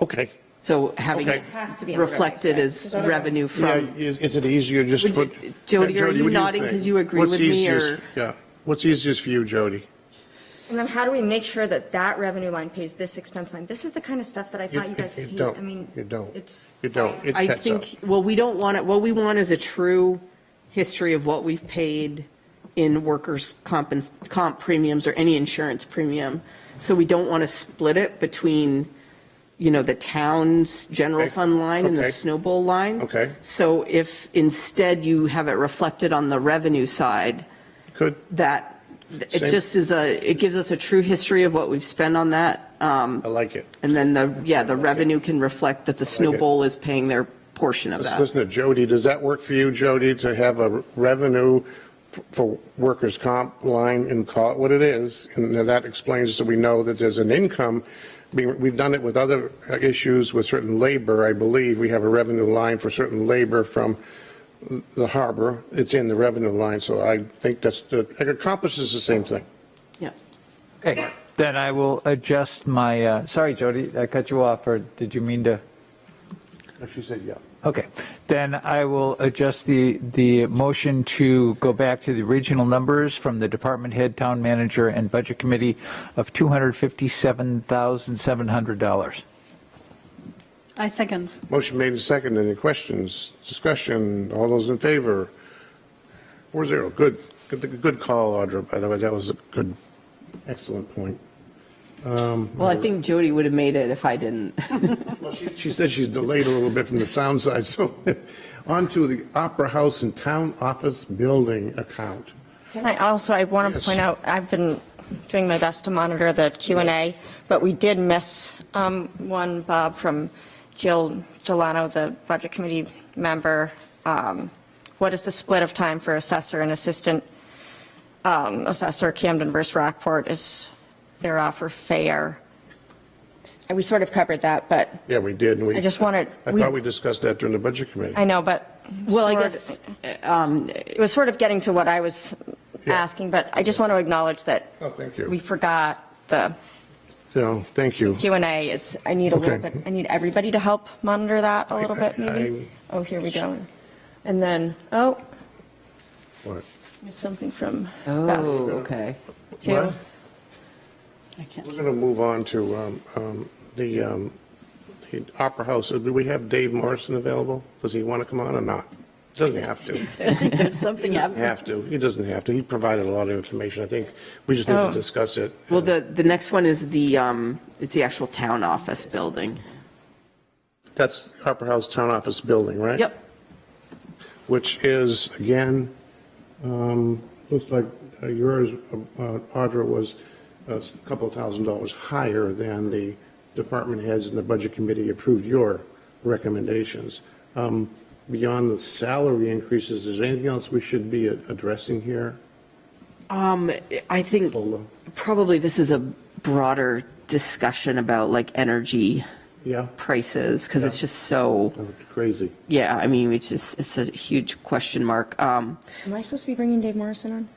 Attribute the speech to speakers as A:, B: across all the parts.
A: Okay.
B: So having
A: Okay.
B: it
A: It
C: has to be on the revenue
B: reflected
C: side.
B: as revenue
A: Yeah,
B: from,
A: is, is it easier just to
B: Would you-
A: put?
B: Jody,
A: Yeah,
B: are you
A: what do
B: nodding
A: think?
B: 'cause you agree
A: What's
B: with me,
A: easiest-
B: or-
A: Yeah, what's easiest for you, Jody?
C: And then how do we make sure that that revenue line pays this expense line? This is the kind of stuff that I
A: You-
C: thought you guys
A: you
C: hate.
A: don't.
C: I mean,
A: You don't.
C: It's.
A: You don't, it
B: I
A: pets up.
B: think, well, we don't want it, what we want is a true history of what we've paid in workers' comp, and- comp premiums or any insurance premium. So we don't want to split it between, you know, the town's general
A: Okay.
B: fund line and the
A: Okay.
B: snowball line.
A: Okay.
B: So if instead you have it reflected on the revenue side,
A: Could,
B: that, it
A: Same.
B: just is a, it gives us a true history of what we've spent on that. um,
A: I like it.
B: And then the, yeah, the revenue can reflect that the snowball is paying their portion of
A: Let's
B: that.
A: listen to Jody. Does that work for you, Jody, to have a revenue f- for workers' comp line and call it what it is? And then that explains, so we know that there's an income, being- we've done it with other uh, issues with certain labor, I believe. We have a revenue line for certain labor from the harbor. It's in the revenue line, so I think that's, the- it accomplishes the same thing.
B: Yeah.
D: Okay, then I will adjust my, uh, sorry, Jody, I cut you off, or did you mean to?
A: She said, yeah.
D: Okay, then I will adjust the, the motion to go back to the original numbers from the department head, town manager, and budget committee of $257,700.
E: I second.
A: Motion made and seconded. Any questions, discussion? All those in favor? Four zero. Good. Good, good call, Audra, by the way. That was a good, excellent point.
B: Well, I think Jody would have made it if I didn't.
A: Well, she- She said she's delayed a little bit from the sound side, so on to the Opera House and Town Office Building account.
C: And I also, I want to
A: Yes.
C: point out, I've been doing my best to monitor the Q and A, but we did miss um, one, Bob, from Jill Delano, the Budget Committee member. Um, What is the split of time for assessor and assistant um, assessor Camden versus Rockport? Is their offer fair? And we sort of covered that, but
A: Yeah, we did. and we-
C: I just wanted-
A: I
C: we-
A: thought we discussed that during the budget committee.
C: I know, but.
B: Well, I
C: sort-
B: guess, um,
C: It was sort of getting to what I was
A: Yeah.
C: asking, but I just want to acknowledge that
A: Oh, thank you.
C: we forgot the
A: So, thank you.
C: Q and A is, I need a little
A: Okay.
C: bit, I need everybody to help monitor that a little bit, maybe. Oh, here we go. And then, oh,
A: What?
C: there's something from Beth,
B: oh, okay.
C: too.
A: What?
E: I can't.
A: We're going to move on to um, um, the um, the Opera House. Do we have Dave Morrison available? Does he want to come on or not? Doesn't have to.
E: I think there's something
A: Doesn't have to. He doesn't have to. He provided a lot of information. I think we just need to
C: Oh.
A: discuss it.
B: Well, the, the next one is the, um, it's the actual town office building.
A: That's Opera House Town Office Building, right?
B: Yep.
A: Which is, again, um, looks like uh, yours, uh, Audra, was a couple thousand dollars higher than the department heads and the budget committee approved your recommendations. Um, Beyond the salary increases, is there anything else we should be addressing here?
B: Um, I think
A: Hold on.
B: probably this is a broader discussion about like energy
A: Yeah,
B: prices, because it's
A: Yeah.
B: just so,
A: Oh, crazy.
B: yeah, I mean, it's just, it's a huge question mark. Um,
C: Am I supposed to be bringing Dave Morrison on?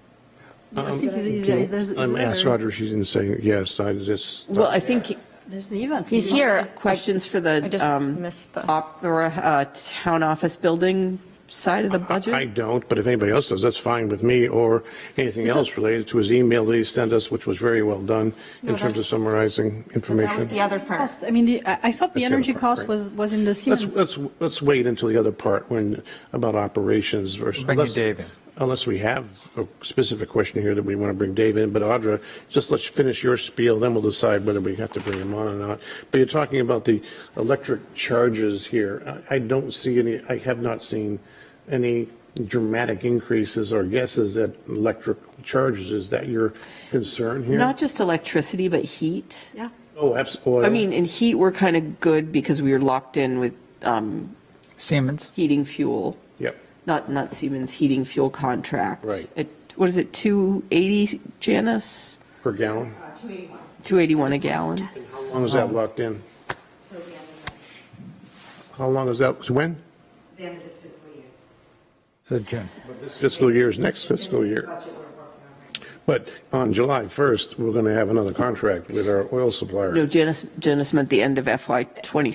A: Um, I'm asked Audra, she didn't say yes, I just.
B: well, I think
E: There's an event.
C: He's here.
B: questions for
C: I
B: the,
C: just
B: um,
C: missed the-
B: opera, uh, town office building side of the budget?
A: I don't, but if anybody else does, that's fine with me, or anything else related to his email that he sent us, which was very well done in
C: No,
A: terms of
C: that's-
A: summarizing
C: That was
A: information.
C: the other part.
E: Cost. I mean, the- I I thought
A: That's
E: the
A: the
E: energy
A: other part,
E: cost
A: right.
E: was, was in the
A: Let's,
E: Siemens.
A: let's, let's wait until the other part when, about operations versus.
D: Bring in
A: unless-
D: Dave in.
A: Unless we have a specific question here that we want to bring Dave in, but Audra, just let's finish your spiel, then we'll decide whether we have to bring him on or not. But you're talking about the electric charges here. I, I don't see any, I have not seen any dramatic increases or guesses at electric charges. Is that your concern here?
B: Not just electricity, but heat.
E: Yeah.
A: Oh, absolutely.
B: I mean, in heat, we're kind of good because we were locked in with um,
D: Siemens?
B: heating fuel,
A: Yep,
B: not, not Siemens heating fuel contract.
A: Right.
B: At- What is it, 280, Janice?
A: per gallon.
F: Uh,
B: 281 a gallon?
A: How long is
B: Oh.
A: that locked in? How long is that, when?
F: the end of this fiscal year.
D: So Jim.
A: This fiscal year is next fiscal
F: This
A: year.
F: budget we're working on right now.
A: But on July 1st, we're going to have another contract with our oil supplier.
B: No, Janice, Janice meant the end of FY '23.